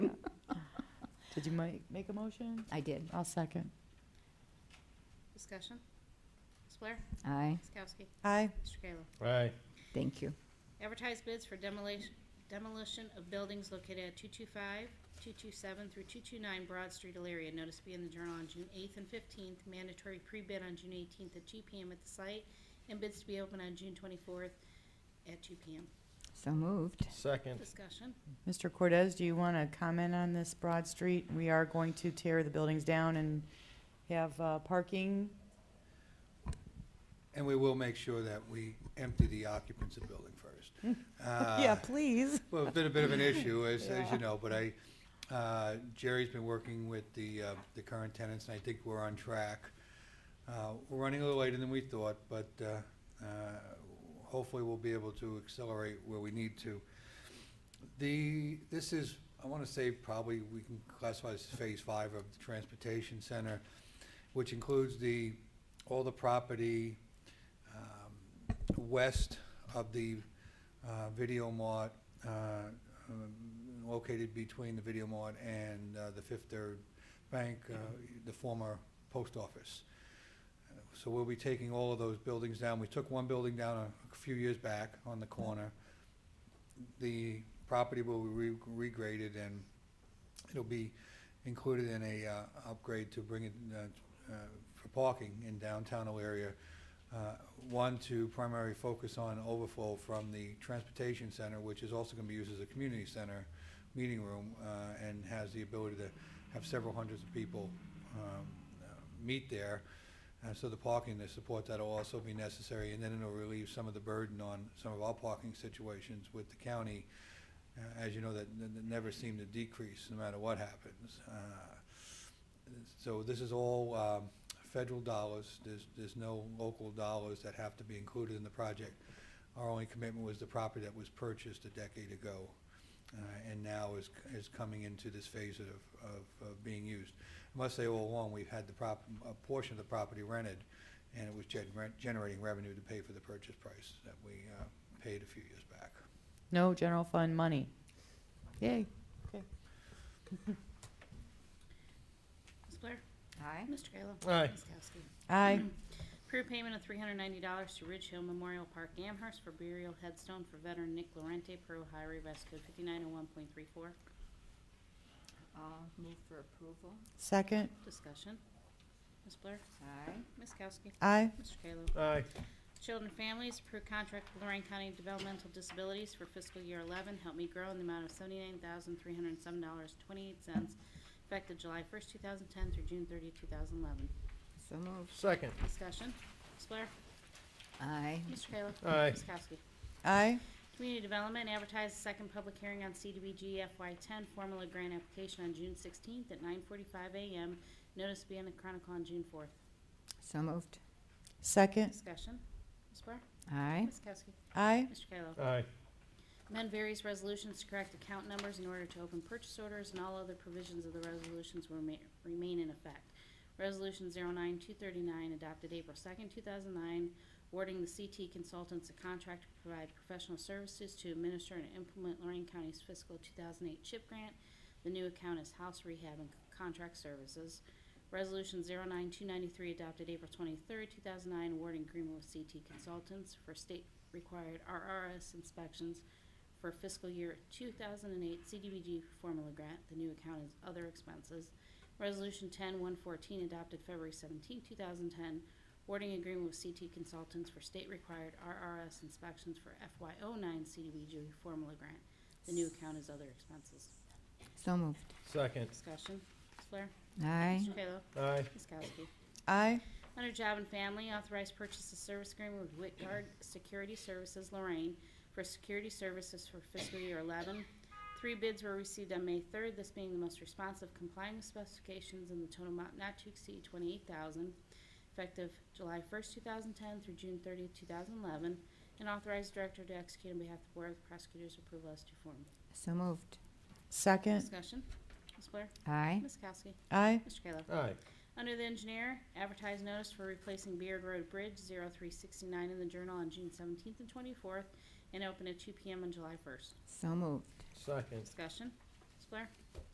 Did you make, make a motion? I did. I'll second. Discussion. Ms. Blair? Aye. Ms. Kowski? Aye. Mr. Kayla? Aye. Thank you. Advertise bids for demolition, demolition of buildings located at 225, 227 through 229 Broad Street, Elaria. Notice to be in the Journal on June 8th and 15th. Mandatory pre-bid on June 18th at 2 PM at the site, and bids to be open on June 24th at 2 PM. So moved. Second. Discussion. Mr. Cortez, do you want to comment on this Broad Street? We are going to tear the buildings down and have uh, parking. And we will make sure that we empty the occupants of the building first. Yeah, Uh, please. Well, it's been a bit of an issue, as, as Yeah. you know, but I, uh, Jerry's been working with the, uh, the current tenants, and I think we're on track. Uh, We're running a little later than we thought, but uh, uh, hopefully we'll be able to accelerate where we need to. The, this is, I want to say probably we can classify this as phase five of the transportation center, which includes the, all the property um, west of the uh, Video Mart, uh, um, located between the Video Mart and uh, the Fifth Third Bank, uh, the former post office. Uh, So we'll be taking all of those buildings down. We took one building down a- a few years back on the corner. The property will be re- regraded and it'll be included in a uh, upgrade to bring it uh, uh, for parking in downtown area uh, One, to primarily focus on overflow from the transportation center, which is also going to be used as a community center, meeting room, uh, and has the ability to have several hundreds of people um, uh, meet there. Uh, So the parking to support that will also be necessary, and then it'll relieve some of the burden on some of our parking situations with the county. Uh, As you know, that that- that never seem to decrease, no matter what happens. Uh, so this is all um, federal dollars, there's, there's no local dollars that have to be included in the project. Our only commitment was the property that was purchased a decade ago, uh, and now is, is coming into this phase of, of, of being used. I must say all along, we've had the prop, a portion of the property rented, and it was gen- rent- generating revenue to pay for the purchase price that we uh, paid a few years back. No general fund money. Yay. Ms. Blair? Aye. Mr. Kayla? Aye. Ms. Kowski? Aye. Approve payment of three hundred ninety dollars to Ridge Hill Memorial Park Amherst for burial headstone for veteran Nick Lorente per Ohio Revised Code fifty-nine oh one point three four. I'll move for approval. Second. Discussion. Ms. Blair? Aye. Ms. Kowski? Aye. Mr. Kayla? Aye. Children and Families, approve contract with Lorraine County Developmental Disabilities for fiscal year eleven, Help Me Grow, in the amount of seventy-nine thousand three hundred and seven dollars twenty-eight cents, effective July first, two thousand ten through June 30, 2011. So moved. Second. Discussion. Ms. Blair? Aye. Mr. Kayla? Aye. Ms. Kowski? Aye. Community Development advertised second public hearing on CDBG FY10 formula grant application on June 16th at 9:45 a.m. Notice to be in the Chronicle on June 4th. So moved. Second. Discussion. Ms. Blair? Aye. Ms. Kowski? Aye. Mr. Kayla? Aye. Amend various resolutions to correct account numbers in order to open purchase orders, and all other provisions of the resolutions will rema- remain in effect. Resolution 09239, adopted April 2nd, 2009, awarding the CT Consultants a contract to provide professional services to administer and implement Lorraine County's fiscal 2008 CHIP grant. The new account is House Rehab and Contract Services. Resolution 09293, adopted April 23rd, 2009, awarding agreement with CT Consultants for state-required RRS inspections for fiscal year 2008 CDBG formula grant. The new account is other expenses. Resolution 10114 adopted February 17, 2010, awarding agreement with CT Consultants for state-required RRS inspections for FY09 CDBG formula grant. The new account is other expenses. So moved. Second. Discussion. Ms. Blair? Aye. Mr. Kayla? Aye. Ms. Kowski? Aye. Under Job and Family, authorized purchase of service agreement with Whitgard Security Services Lorraine for security services for fiscal year 11. Three bids were received on May 3rd, this being the most responsive complying with specifications in the total amount not to exceed 28000 effective July 1st, 2010 through June 30th, 2011, and authorized director to execute on behalf of the Board of Prosecutors' approval as to form. So moved. Second. Discussion. Ms. Blair? Aye. Ms. Kowski? Aye. Mr. Kayla? Aye. Under the engineer, advertise notice for replacing Beard Road Bridge 0369 in the Journal on June 17th and 24th, and open at 2 PM on July 1st. So moved. Second. Discussion, Ms. Blair?